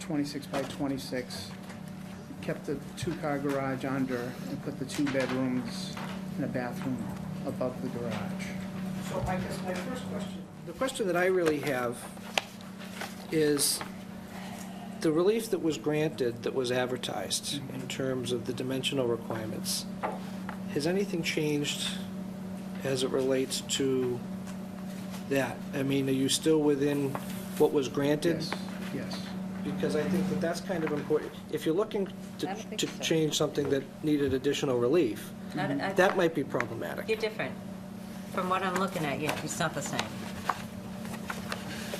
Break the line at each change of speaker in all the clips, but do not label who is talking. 26 by 26, kept the two-car garage under, and put the two bedrooms and a bathroom above the garage.
So I guess my first question, the question that I really have is, the relief that was granted, that was advertised in terms of the dimensional requirements, has anything changed as it relates to that? I mean, are you still within what was granted?
Yes, yes.
Because I think that that's kind of important. If you're looking
I
to
don't think
to
so.
change something that needed additional relief,
Not- I-
that might be problematic.
You're different. From what I'm looking at, you, it's not the same.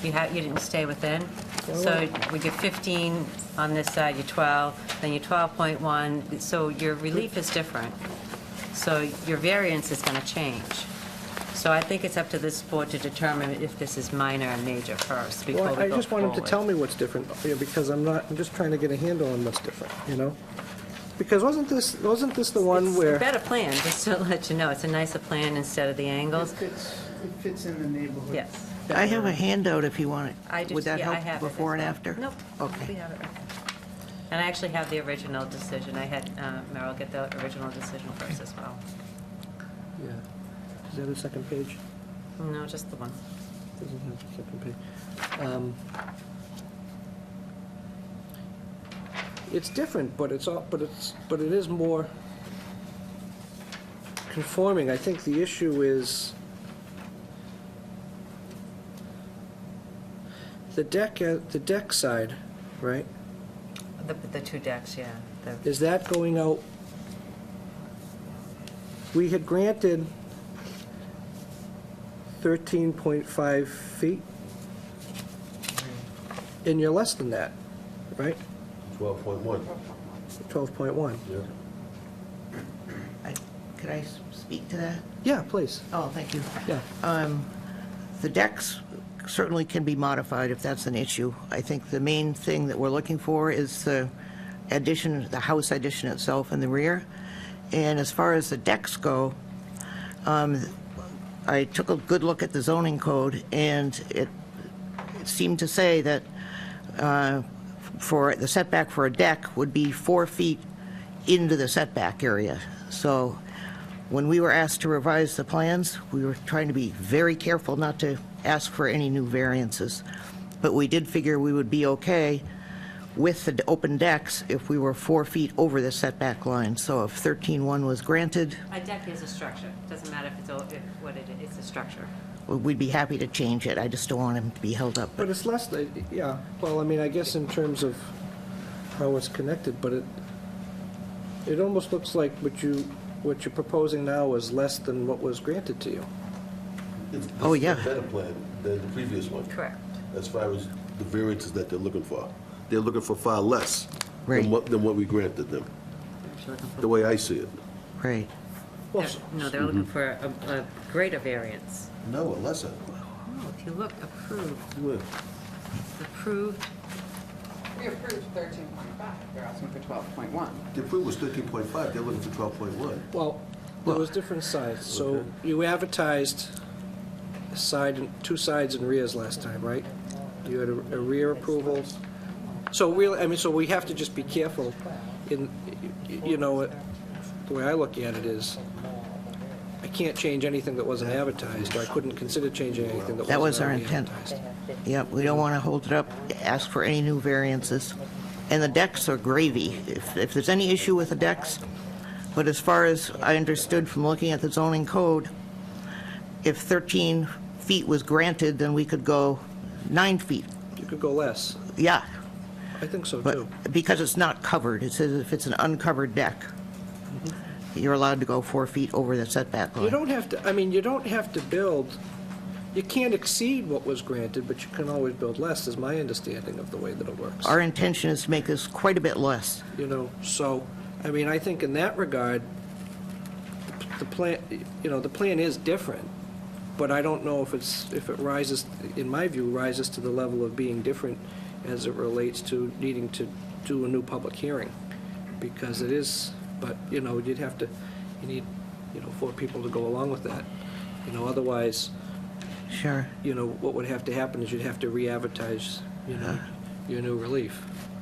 You had, you didn't stay within, so we get 15 on this side, you're 12, then you're 12.1, so your relief is different. So your variance is going to change. So I think it's up to this board to determine if this is minor or major first before we go
Well, I
forward.
just want him to tell me what's different, you know, because I'm not, I'm just trying to get a handle on what's different, you know? Because wasn't this, wasn't this the one
It's a
where,
better plan, just to let you know. It's a nicer plan instead of the
It
angles.
fits, it fits in the neighborhood.
Yes.
I have a handout if you want it.
I do,
Would that
yeah, I
help
have it as
before and
well.
after?
Nope. We
Okay.
have it right there. And I actually have the original decision. I had uh, Merrill get the original decision first as well.
yeah, is that the second page?
No, just the one.
Doesn't have the second page. Um, It's different, but it's all, but it's, but it is more conforming. I think the issue is the deck, uh, the deck side, right?
The, the two decks, yeah. The-
is that going out? We had granted 13.5 feet, and you're less than that, right?
12.1,
12.1.
yeah.
I- Could I s- speak to that?
Yeah, please,
Oh, thank you.
yeah.
The decks certainly can be modified if that's an issue. I think the main thing that we're looking for is the addition, the house addition itself in the rear. And as far as the decks go, um, I took a good look at the zoning code, and it it seemed to say that uh, for, the setback for a deck would be four feet into the setback area. So when we were asked to revise the plans, we were trying to be very careful not to ask for any new variances. But we did figure we would be okay with the open decks if we were four feet over the setback line. So if 13-1 was granted,
A deck is a structure. Doesn't matter if it's, o- if what it is, it's a structure.
we'd be happy to change it. I just don't want him to be held up.
But it's less, than- yeah, well, I mean, I guess in terms of how it's connected, but it, it almost looks like what you, what you're proposing now is less than what was granted to you.
It's- this
Oh,
is a
yeah.
Better plan than the previous one.
Correct.
As far as the variances that they're looking for. They're looking for far less
Right.
than what, than what we granted them,
Actually looking for-
the way I see it.
Right.
Well,
They're- No, they're looking for a, a greater variance.
No, a lesser.
Oh, if you look, approved,
Yeah.
approved,
We approved thirteen point five, they're asking for twelve point one.
The approval was 13.5, they're looking for 12.1.
Well, there was different sides, so you advertised side, and- two sides and rears last time, right? You had a a rear approval. So really, I mean, so we have to just be careful in, you know, the way I look at it is, I can't change anything that wasn't advertised, or I couldn't consider changing anything that wasn't
That was our
already
intent.
advertised.
Yep, we don't want to hold it up, ask for any new variances. And the decks are gravy. If, if there's any issue with the decks, but as far as I understood from looking at the zoning code, if 13 feet was granted, then we could go nine feet.
You could go less.
Yeah,
I think so, too.
but because it's not covered, it says if it's an uncovered deck, you're allowed to go four feet over the setback
You
line.
don't have to, I mean, you don't have to build, you can't exceed what was granted, but you can always build less, is my understanding of the way that it works.
Our intention is to make this quite a bit less.
You know, so, I mean, I think in that regard, the plan, you know, the plan is different, but I don't know if it's, if it rises, in my view, rises to the level of being different as it relates to needing to do a new public hearing, because it is, but, you know, you'd have to, you need, you know, four people to go along with that. You know, otherwise,
Sure.
you know, what would have to happen is you'd have to re-advertise, you know, your new relief.